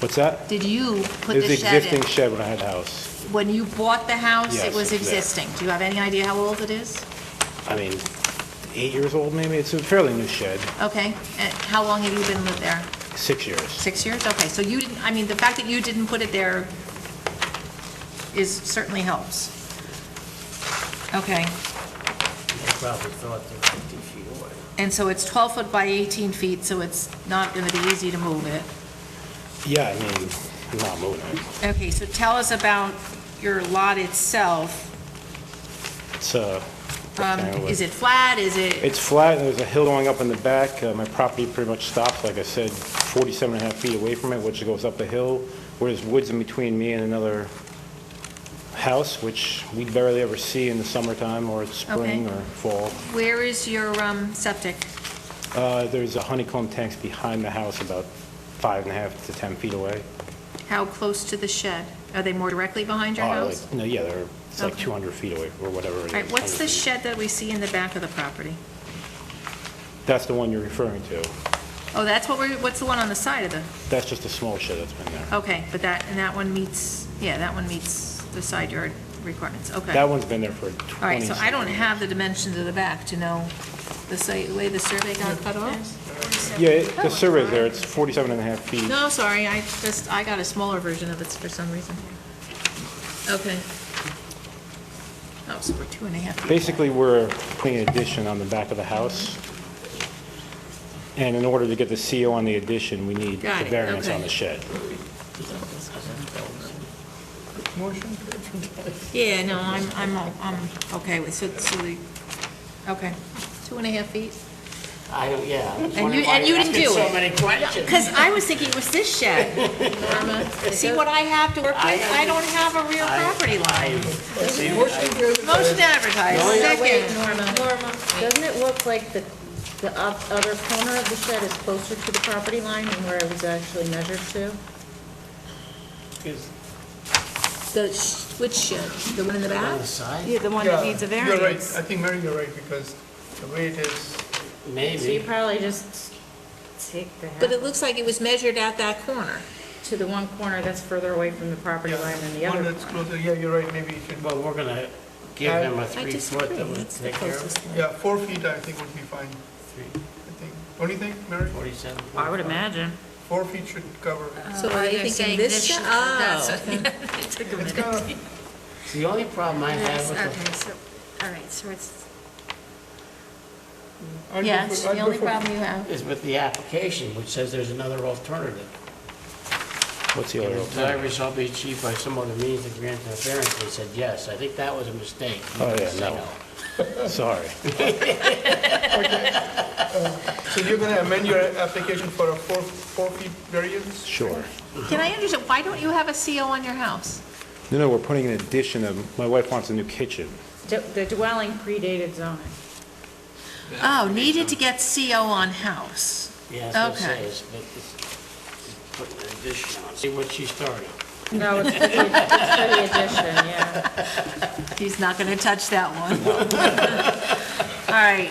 What's that? Did you put There's the the shed existing in? shed when I had a house. When you bought the house, it Yes, was it's there. existing. Do you have any idea how old it is? I mean, eight years old maybe. It's a fairly new shed, Okay. And how long have you been lived there? six years. Six years? Okay, so you didn't, I mean, the fact that you didn't put it there is, certainly helps. Okay, They probably thought they were fifty feet away. and so it's 12 foot by 18 feet, so it's not going to be easy to move it. Yeah, I mean, I'm not moving it. Okay, so tell us about your lot itself. It's, uh, Um, rectangular. Is it flat, is it, It's flat, and there's a hill going up in the back. Uh, My property pretty much stops, like I said, 47 and a half feet away from it, which goes up a hill, where there's woods in between me and another house, which we barely ever see in the summertime, or it's spring, Okay. or fall. where is your um, septic? Uh, There's a honeycomb tanks behind the house, about five and a half to 10 feet away. How close to the shed? Are they more directly behind your Uh, house? like- No, yeah, they're, it's like Okay. 200 feet away, or whatever it is. All right, what's the 100 feet. shed that we see in the back of the property? That's the one you're referring to. Oh, that's what we're, what's the one on the side of the, That's just a small shed that's been there. okay, but that, and that one meets, yeah, that one meets the side yard requirements, okay. That one's been there for 20... All right, so I don't have the dimensions of the back to know the site, the way the survey got cut off. Yeah, it- the survey's there, it's 47 and a half feet. No, sorry, I just, I got a smaller version of it for some reason. Okay. Oh, so we're two and a half feet. back. Basically, we're putting an addition on the back of the house, and in order to get the CO on the addition, we need Got the it, variance on okay. the shed. Yeah, no, I'm, I'm, o- I'm okay with, so, so the, okay, two and a half feet. I don't, yeah. I was And wondering you, why and you you're didn't do asking it. So many questions. Because I was thinking it was this shed. See what I have to work with? I don't have a real property line. Motion to advertise, Wait, second. Norma, Norma, doesn't it look like the, the up- other corner of the shed is closer to the property line than where it was actually measured to? The, sh- which shed? The one in the On back? the side, Yeah, the one Yeah, You're right, I think Mary, you're right, because the way it is, So you maybe. probably just take the But it half looks like it was measured at that corner. to the one corner that's further away from the property yeah, line than the one other. that's closer, yeah, you're right, maybe it should, Well, we're gonna give I- him a I three disagree, foot that would it's the take care of closest one. yeah, four feet, I think would be fine, three, I think. Don't you think, Mary? forty-seven. I would imagine. Four feet should cover it. So are they thinking this shed? Oh. It's kind of, The only problem I have Yes, with okay, so, all right, so it's, I'd go Uh, Yes, for- I'd the go only for- problem you have. the, is with the application, which says there's another alternative. What's the If other The alternative? desire shall be achieved by some other means to grant the variance, they said yes. I think that was a mistake. You Oh, didn't yeah, say no. Sorry. So you're gonna amend your application for a four, four feet variance? Sure. Can I understand, why don't you have a CO on your house? No, no, we're putting an addition of, my wife wants a new kitchen. D- The dwelling predated zoning. Oh, needed to get CO on house. Yeah, that's what it Okay. says, but it's, it's putting an addition on. See what she started. No, it's for the it's for the addition, yeah. He's not going to touch that one. All right.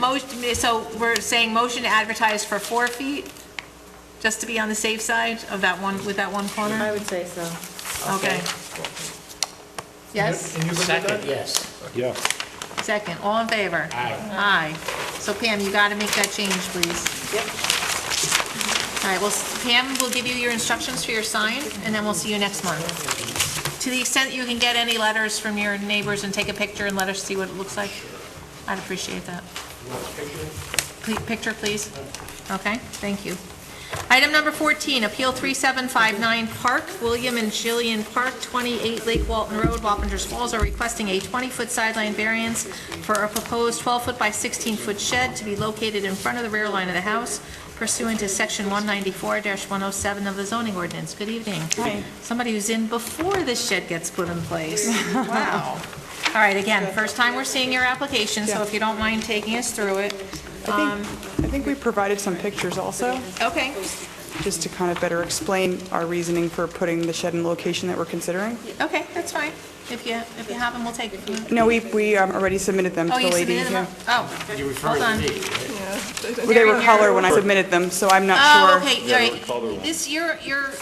Motion, so we're saying motion to advertise for four feet, just to be on the safe side of that one, with that one I corner? would say so. Okay. Yes, And you can do Second, that? yes. Yeah. second, all in favor? Aye. Aye. So Pam, you got to make that change, please. Yep. All right, well, s- Pam will give you your instructions for your sign, and then we'll see you next month. To the extent you can get any letters from your neighbors and take a picture and let us see what it looks like, I'd appreciate that. Ple- Picture, please. Okay, thank you. Item number 14, Appeal 3759 Park, William and Jillian Park, 28 Lake Walton Road, Wapengers Falls, are requesting a 20-foot sideline variance for a proposed 12-foot by 16-foot shed to be located in front of the rear line of the house pursuant to Section 194-107 of the zoning ordinance. Good evening. Hi. Somebody who's in before the shed gets put in place. Wow. All right, again, first time we're seeing your application, so if you don't mind taking us through it. Um, I think, I think we provided some pictures also, Okay, just to kind of better explain our reasoning for putting the shed in the location that we're considering. okay, that's fine. If you, if you have them, we'll take it. No, we, we um, already submitted them to Oh, the you lady. submitted them? yeah. Oh, You hold referred to on. me, right? They were They're here. color when I submitted them, so I'm not sure. Oh, okay, all right. Oh, This, your, your